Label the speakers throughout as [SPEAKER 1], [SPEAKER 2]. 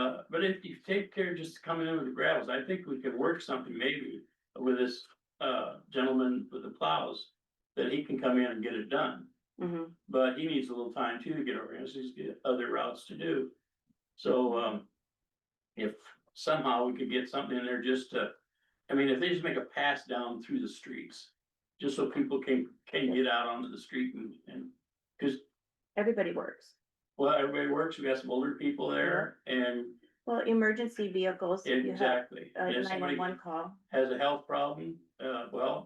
[SPEAKER 1] Uh, But if you take care just coming in with the gravels, I think we could work something maybe with this uh gentleman with the plows. That he can come in and get it done,
[SPEAKER 2] Mm-hmm.
[SPEAKER 3] Mhm.
[SPEAKER 1] but he needs a little time too to get organized, he's got other routes to do. So um. If somehow we could get something in there just to, I mean, if they just make a pass down through the streets. Just so people can can get out onto the street and and, cause
[SPEAKER 3] everybody works.
[SPEAKER 1] well, everybody works, we got some older people there and
[SPEAKER 3] Well, emergency vehicles, if Mm-hmm. you have uh,
[SPEAKER 1] Exactly,
[SPEAKER 3] a
[SPEAKER 1] and if somebody
[SPEAKER 3] nine-one-one call.
[SPEAKER 1] has a health problem, uh, well,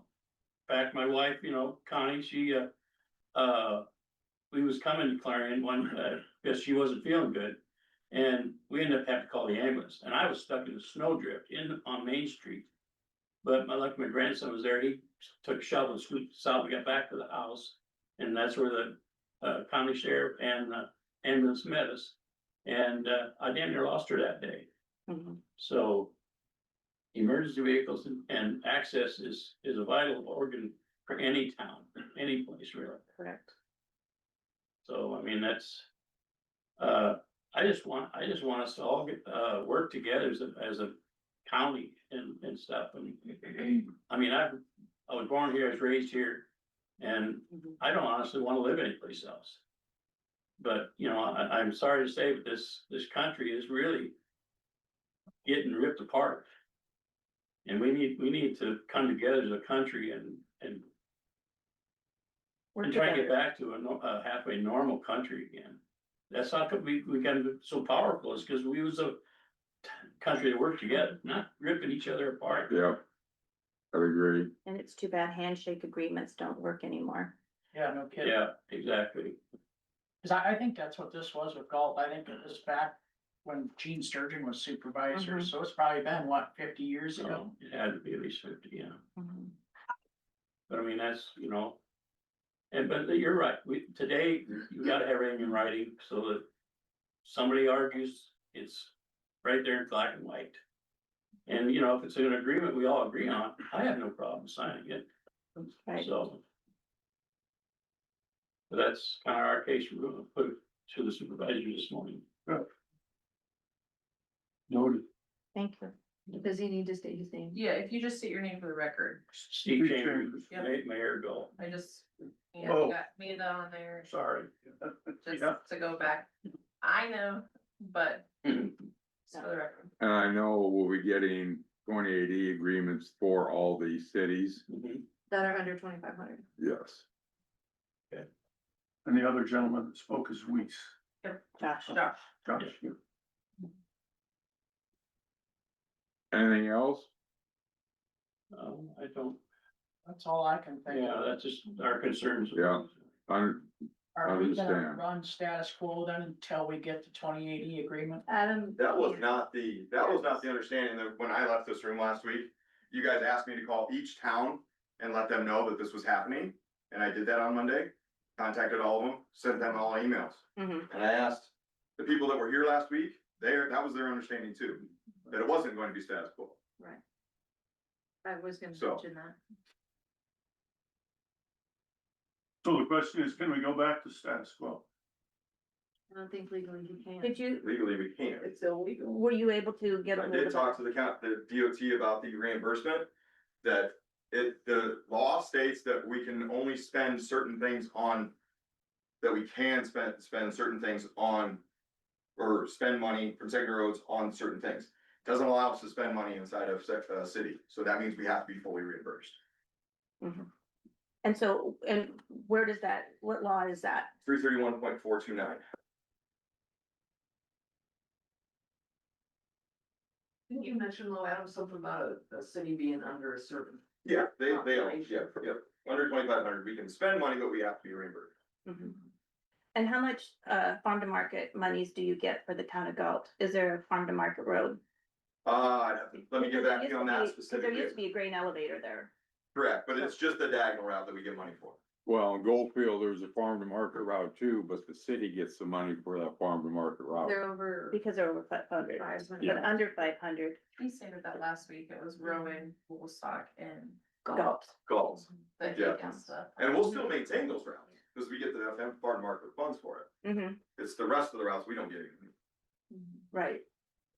[SPEAKER 1] back my wife, you know, Connie, she, uh, uh, we was coming to Clarion one, uh, because she wasn't feeling good. And we ended up having to call the ambulance, and I was stuck in a snowdrift in, on Main Street. But my, luck, my grandson was there, he took a shovel and scooped us out, we got back to the house. And that's where the, uh, county sheriff and, uh, ambulance met us. And, uh, I damn near lost her that day.
[SPEAKER 3] Mhm.
[SPEAKER 1] So. Emergency vehicles and, and access is, is a vital organ for any town, any place really.
[SPEAKER 3] Correct.
[SPEAKER 1] So, I mean, that's. Uh, I just want, I just want us to all get, uh, work together as a, as a county and, and stuff. And I mean, I, I was born here, I was raised here. And
[SPEAKER 3] Mhm.
[SPEAKER 1] I don't honestly want to live anyplace else. But, you know, I, I'm sorry to say, but this, this country is really getting ripped apart. And we need, we need to come together as a country and, and,
[SPEAKER 3] Work
[SPEAKER 1] and try to get
[SPEAKER 3] together.
[SPEAKER 1] back to a, no- a halfway normal country again. That's how come we, we got so powerful is because we was a t- country that worked together, not ripping each other apart.
[SPEAKER 4] Yeah. I agree.
[SPEAKER 3] And it's too bad handshake agreements don't work anymore.
[SPEAKER 5] Yeah, no kidding.
[SPEAKER 1] Yeah, exactly.
[SPEAKER 5] Cause I, I think that's what this was with golf. I think it was back when Gene Sturgeon was supervisor,
[SPEAKER 4] Mm-hmm.
[SPEAKER 3] Mhm.
[SPEAKER 5] so it's probably been, what, fifty years ago?
[SPEAKER 1] So it had to be at least fifty, yeah.
[SPEAKER 3] Mhm.
[SPEAKER 1] But I mean, that's, you know. And but you're right, we, today, you gotta have everything in writing so that somebody argues, it's right there in black and white. And you know, if it's an agreement we all agree on, I have no problem signing it,
[SPEAKER 3] Right.
[SPEAKER 1] so. But that's kind of our case, we're gonna put it to the supervisor this morning. Noted.
[SPEAKER 3] Thank you.
[SPEAKER 6] Does he need to state his name?
[SPEAKER 7] Yeah, if you just state your name for the record,
[SPEAKER 1] Steve Chambers,
[SPEAKER 7] Yep.
[SPEAKER 1] made Mayor Bill,
[SPEAKER 7] I just, yeah,
[SPEAKER 1] Oh.
[SPEAKER 7] got me that on there,
[SPEAKER 1] sorry.
[SPEAKER 7] just
[SPEAKER 1] Yeah.
[SPEAKER 7] to go back. I know, but just for the record,
[SPEAKER 4] And I know we'll be getting twenty eighty agreements for all the cities.
[SPEAKER 1] Mhm.
[SPEAKER 6] That are under twenty-five hundred.
[SPEAKER 4] Yes.
[SPEAKER 8] And the other gentleman that spoke is Weiss,
[SPEAKER 3] Josh.
[SPEAKER 7] Josh,
[SPEAKER 8] Josh.
[SPEAKER 4] Anything else?
[SPEAKER 1] Um, I don't,
[SPEAKER 5] That's all I can think
[SPEAKER 1] yeah,
[SPEAKER 5] of.
[SPEAKER 1] that's just our concerns.
[SPEAKER 4] Yeah. I,
[SPEAKER 5] Are we gonna
[SPEAKER 4] understand.
[SPEAKER 5] run status quo then until we get the twenty eighty agreement?
[SPEAKER 6] Adam.
[SPEAKER 2] That was not the, that was not the understanding that when I left this room last week, you guys asked me to call each town and let them know that this was happening. And I did that on Monday, contacted all of them, sent them all emails.
[SPEAKER 3] Mhm.
[SPEAKER 2] And I asked the people that were here last week, there, that was their understanding too, that it wasn't going to be status quo.
[SPEAKER 6] I was gonna
[SPEAKER 2] So.
[SPEAKER 6] mention that.
[SPEAKER 8] So the question is, can we go back to status quo?
[SPEAKER 6] I don't think legally he can.
[SPEAKER 3] Did you,
[SPEAKER 2] Legally, we can't.
[SPEAKER 6] illegal.
[SPEAKER 3] were you able to get a
[SPEAKER 2] I
[SPEAKER 3] hold
[SPEAKER 2] did
[SPEAKER 3] of?
[SPEAKER 2] talk
[SPEAKER 3] her?
[SPEAKER 2] to the count, the DOT about the reimbursement, that it, the law states that we can only spend certain things on. That we can spend, spend certain things on, or spend money from secondary roads on certain things. Doesn't allow us to spend money inside of sec, uh, city, so that means we have to be fully reimbursed.
[SPEAKER 3] And so, and where does that, what law is that?
[SPEAKER 2] Three thirty-one point four two nine.
[SPEAKER 9] Didn't you mention, Lo Adam, something about a, a city being under a certain?
[SPEAKER 2] Yeah, they, they, are, yeah, yeah, under twenty-five hundred, we can spend money, but we have to be reimbursed.
[SPEAKER 3] Mhm. And how much uh farm to market monies do you get for the town of Galt? Is there a farm to market road?
[SPEAKER 2] Uh, I'd have to, let me get
[SPEAKER 3] Because there
[SPEAKER 2] back to
[SPEAKER 3] used
[SPEAKER 2] you on
[SPEAKER 3] to
[SPEAKER 2] that
[SPEAKER 3] be- 'cause There used to
[SPEAKER 2] specifically.
[SPEAKER 3] be a grain elevator there.
[SPEAKER 2] Correct, but it's just the diagonal route that we get money for.
[SPEAKER 4] Well, in Goldfield, there's a farm to market route too, but the city gets the money for that farm to market route.
[SPEAKER 6] They're over
[SPEAKER 3] Because they're over five hundred,
[SPEAKER 6] five hundred.
[SPEAKER 3] but under five hundred,
[SPEAKER 7] we stated that last week, it was Rowan, Woolstock and.
[SPEAKER 3] Galt.
[SPEAKER 2] Goals.
[SPEAKER 7] the
[SPEAKER 2] Yeah.
[SPEAKER 7] Higgins stuff.
[SPEAKER 2] And we'll still maintain those routes, because we get the farm market funds for it.
[SPEAKER 3] Mhm,
[SPEAKER 2] It's the rest of the routes we don't get. any.
[SPEAKER 3] right.